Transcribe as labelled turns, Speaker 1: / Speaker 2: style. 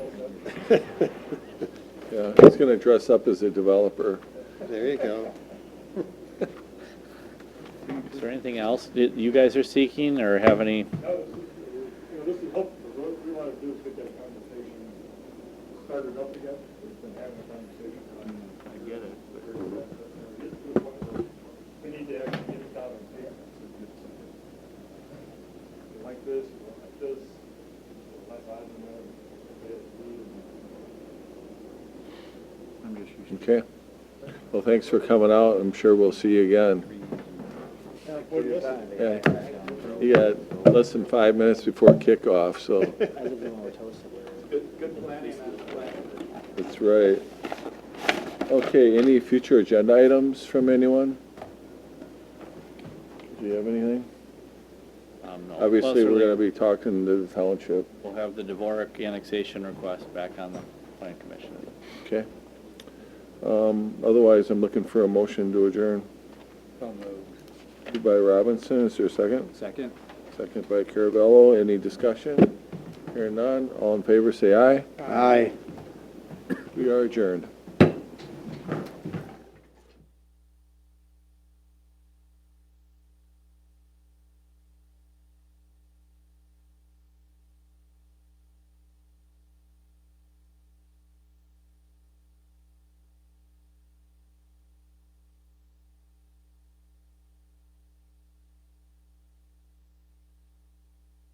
Speaker 1: Yeah, he's going to dress up as a developer.
Speaker 2: There you go.
Speaker 3: Is there anything else that you guys are seeking or have any?
Speaker 4: That was, you know, this is helpful, what we want to do is get that conversation started up again, we've been having a conversation. I get it. We need to actually get it down on paper. Like this, like this, like that, and then,
Speaker 1: Okay. Well, thanks for coming out. I'm sure we'll see you again. Yeah. You got less than five minutes before kickoff, so that's right. Okay, any future agenda items from anyone? Do you have anything?
Speaker 3: um, no.
Speaker 1: Obviously,
Speaker 3: Plus,
Speaker 1: we're going to be talking to the township.
Speaker 3: We'll have the Dvorak annexation request back on the plan commission.
Speaker 1: Okay. Um, Otherwise, I'm looking for a motion to adjourn. Moved by Robinson, is there a second?
Speaker 3: Second.
Speaker 1: Second by Caravello, any discussion? Hearing none, all in favor, say aye.
Speaker 2: Aye.
Speaker 1: We are adjourned.